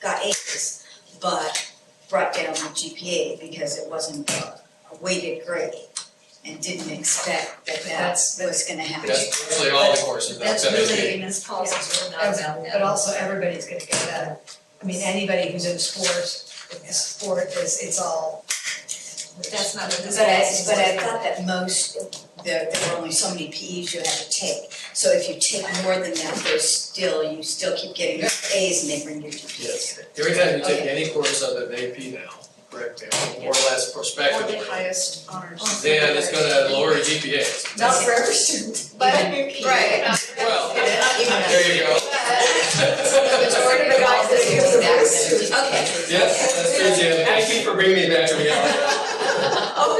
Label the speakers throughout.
Speaker 1: got A's, but brought down the GPA because it wasn't a a weighted grade and didn't expect that that
Speaker 2: That's-
Speaker 1: was gonna happen.
Speaker 2: That's-
Speaker 3: That's usually all the courses, that's
Speaker 2: That's
Speaker 3: that is
Speaker 2: really, Ms. Paulson's were not about that.
Speaker 4: But also everybody's gonna get that, I mean, anybody who's in sports, if the sport is, it's all.
Speaker 2: That's not what this
Speaker 1: But I,
Speaker 2: policy
Speaker 1: but I
Speaker 2: was.
Speaker 1: thought that most, there, there were only so many PEs you had to take. So if you take more than that, there's still, you still keep getting your A's and they bring your GPAs.
Speaker 3: Yes. Every time you take
Speaker 1: Okay.
Speaker 3: any course other than AP now, correct, now, more or less
Speaker 5: Or
Speaker 3: prospectively,
Speaker 5: the highest honors.
Speaker 3: then it's gonna lower your GPAs.
Speaker 4: Not for every student.
Speaker 5: But,
Speaker 1: Right.
Speaker 5: right.
Speaker 3: Well,
Speaker 1: Even though-
Speaker 3: there you go.
Speaker 1: Majority of the guys that do that, okay.
Speaker 3: Yes, that's true, Jim, thank you for bringing me back to reality.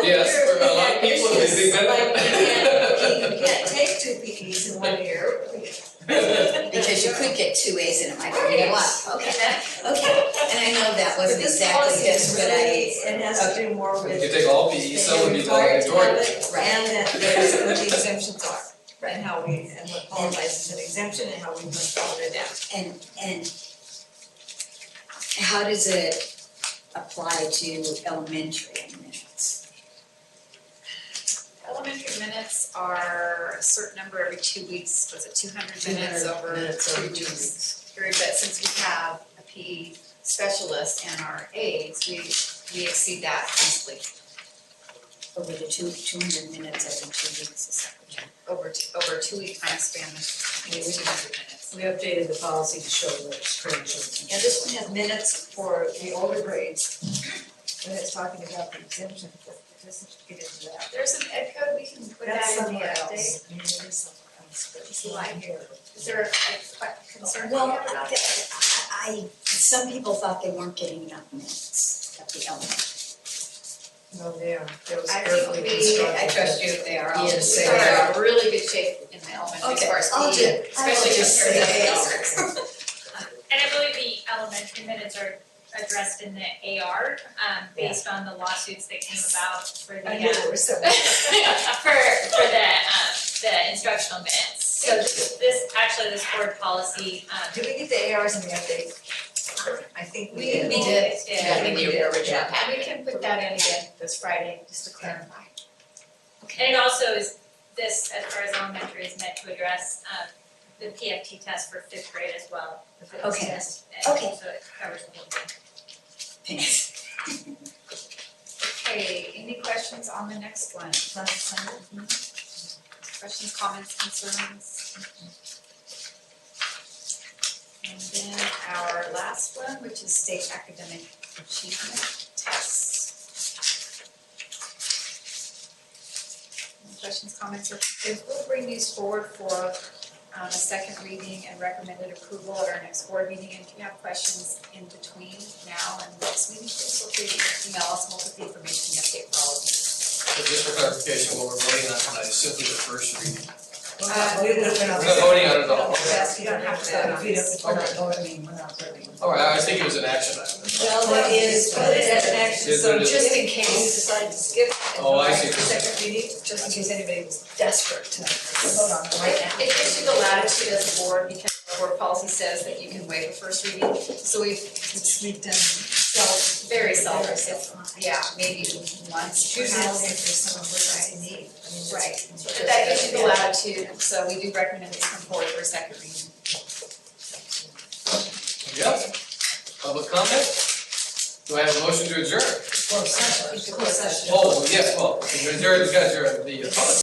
Speaker 3: Yes, Oh, for a lot of people, they think that.
Speaker 2: Like, you can't, you can't take two PEs in one year.
Speaker 1: Because you could get two A's and it might be a lot, okay, that, okay. And I know that
Speaker 2: But
Speaker 1: wasn't
Speaker 2: this
Speaker 1: exactly
Speaker 2: policy
Speaker 1: this,
Speaker 2: is
Speaker 1: but
Speaker 2: really,
Speaker 1: I,
Speaker 2: it has to do more with.
Speaker 3: You could take all PE, some would be valedictorian.
Speaker 1: Right.
Speaker 2: And that there's what the exemptions are.
Speaker 1: Right.
Speaker 2: And how we, and what qualifies as an exemption and how we must follow it down.
Speaker 1: and, and how does it apply to elementary minutes?
Speaker 6: Elementary minutes are a certain number every two weeks, was it two hundred minutes over two weeks? Period, but since we have a PE specialist and our aides, we, we exceed that easily
Speaker 1: Over the two, two hundred minutes every two weeks is that what
Speaker 6: over, t- over a two-week time span, there's two hundred minutes.
Speaker 4: We updated the policy to show the screenshot.
Speaker 2: And this one has minutes for the older grades, when it's talking about the exemption, but it doesn't get into that.
Speaker 6: There's an ed code, we can put
Speaker 2: That's
Speaker 6: that in the
Speaker 2: somewhere
Speaker 6: update.
Speaker 2: else. That's somewhere else, but it's
Speaker 6: You
Speaker 2: not
Speaker 6: like
Speaker 2: here.
Speaker 6: Is there a a concern you
Speaker 1: Well,
Speaker 6: have about
Speaker 1: I, I, some people thought they weren't getting enough minutes at the elementary.
Speaker 4: No,
Speaker 2: Oh,
Speaker 4: they are, that was
Speaker 6: I
Speaker 4: carefully
Speaker 6: think we,
Speaker 4: constructed.
Speaker 6: I trust you, they are all,
Speaker 4: Yes,
Speaker 6: we
Speaker 4: they
Speaker 6: are in really good shape in the elementary
Speaker 1: Okay,
Speaker 6: sports,
Speaker 1: I'll ju-
Speaker 6: especially
Speaker 1: I will just
Speaker 6: compared to
Speaker 1: say
Speaker 6: the
Speaker 1: it's-
Speaker 6: elementary.
Speaker 7: And I believe the elementary minutes are addressed in the AR, um, based on the lawsuits that came about for the,
Speaker 2: I knew
Speaker 7: uh,
Speaker 2: there was something.
Speaker 7: for, for the, um, the instructional minutes. So this, this- actually, this board policy, um,
Speaker 2: Did we get the ARs in the update? I think we
Speaker 6: We
Speaker 2: did.
Speaker 6: we did,
Speaker 7: did.
Speaker 6: yeah, we
Speaker 2: Yeah, we
Speaker 6: did,
Speaker 2: did.
Speaker 6: yeah, and we can put that in again this Friday, just to clarify.
Speaker 7: And it also is, this, as far as elementary, is meant to address, um, the PFT test for fifth grade as well.
Speaker 1: Okay.
Speaker 7: And
Speaker 1: Okay.
Speaker 7: So it covers a little bit.
Speaker 1: Thanks.
Speaker 6: Okay, any questions on the next one? Questions, comments, concerns? And then our last one, which is state academic achievement tests. Any questions, comments, or concerns? We'll bring these forward for um, a second reading and recommended approval at our next board meeting. And if you have questions in between now and the next meeting, please feel free to email us, and we'll put the information update for all of you.
Speaker 3: Just for clarification, what we're voting on tonight is simply the first reading.
Speaker 4: We're
Speaker 2: Uh,
Speaker 4: not- we would've been
Speaker 3: We're not voting on it at all.
Speaker 2: Yes,
Speaker 4: You don't have to,
Speaker 2: vote on
Speaker 4: if you
Speaker 2: this.
Speaker 4: don't, we're not voting, we're not voting.
Speaker 3: All right, I was thinking it was an action item.
Speaker 2: Well, that is, but that's an action,
Speaker 3: Yes,
Speaker 2: so
Speaker 3: it is.
Speaker 2: just in case you decide to skip and
Speaker 3: Oh,
Speaker 2: go
Speaker 3: I
Speaker 2: back
Speaker 3: see.
Speaker 2: to the second reading, just in case anybody was desperate to vote on it right now.
Speaker 6: It gives you the latitude as a board because our board policy says that you can waive the first reading. So we've,
Speaker 2: It's we've done self,
Speaker 6: very seldom,
Speaker 2: very
Speaker 6: it's,
Speaker 2: self.
Speaker 6: yeah, maybe once
Speaker 2: It's
Speaker 6: per
Speaker 2: usually only
Speaker 6: house.
Speaker 2: if there's someone with a need. I mean, it's-
Speaker 6: Right.
Speaker 2: it's
Speaker 6: But that gives
Speaker 2: just-
Speaker 6: you the latitude, so we do recommend these come forward for a second reading.
Speaker 3: Yes. Public comment? Do I have a motion to adjourn?
Speaker 4: Close session.
Speaker 2: Close session.
Speaker 3: Oh, yes, well, to adjourn, you guys are the public.